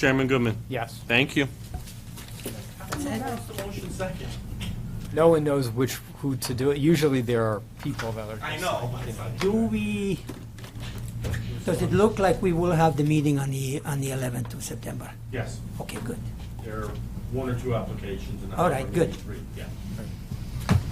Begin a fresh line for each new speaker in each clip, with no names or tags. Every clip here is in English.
Chairman Goodman,
Yes.
thank you.
No one knows which, who to do it. Usually there are people that are. I know.
Do we, does it look like we will have the meeting on the, on the 11th of September?
Yes,
Okay, good.
there are one or two applications. and I
All right,
think
good.
Three, yeah.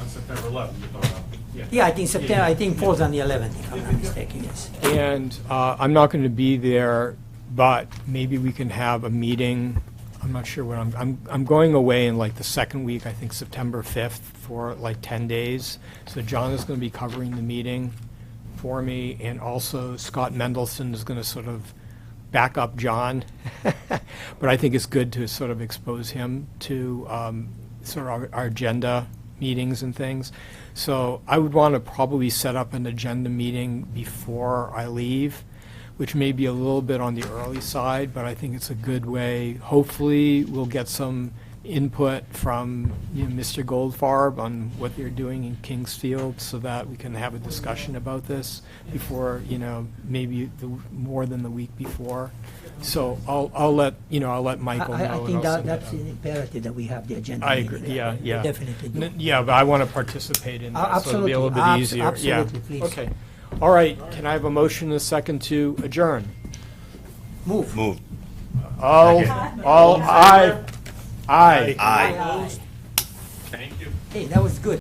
On September 11th, you're talking about.
Yeah, I think September, I think falls on the 11th, if I'm not mistaken, yes.
And uh, I'm not going to be there, but maybe we can have a meeting. I'm not sure when I'm, I'm, I'm going away in like the second week, I think September 5th, for like 10 days. So John is going to be covering the meeting for me, and also Scott Mendelson is going to sort of back up John. But I think it's good to sort of expose him to um, sort of our- our agenda meetings and things. So I would want to probably set up an agenda meeting before I leave, which may be a little bit on the early side, but I think it's a good way. Hopefully, we'll get some input from, you know, Mr. Goldfarb on what they're doing in Kingsfield so that we can have a discussion about this before, you know, maybe the, more than the week before. So I'll, I'll let, you know, I'll let
I-
Michael know.
I, I
and
think
I'll
that,
send it
that's
out.
imperative that we have the agenda.
I
meeting.
agree, yeah,
We
yeah.
Definitely do.
N- Yeah, but I want to participate in
Uh,
that, so it'll be a little bit
absolutely.
easier.
Abs-
Yeah.
absolutely, please.
Okay. All right, can I have a motion and a second to adjourn?
Move.
Move.
All, all, aye. Aye.
Aye.
Aye.
Thank you.
Hey, that was good.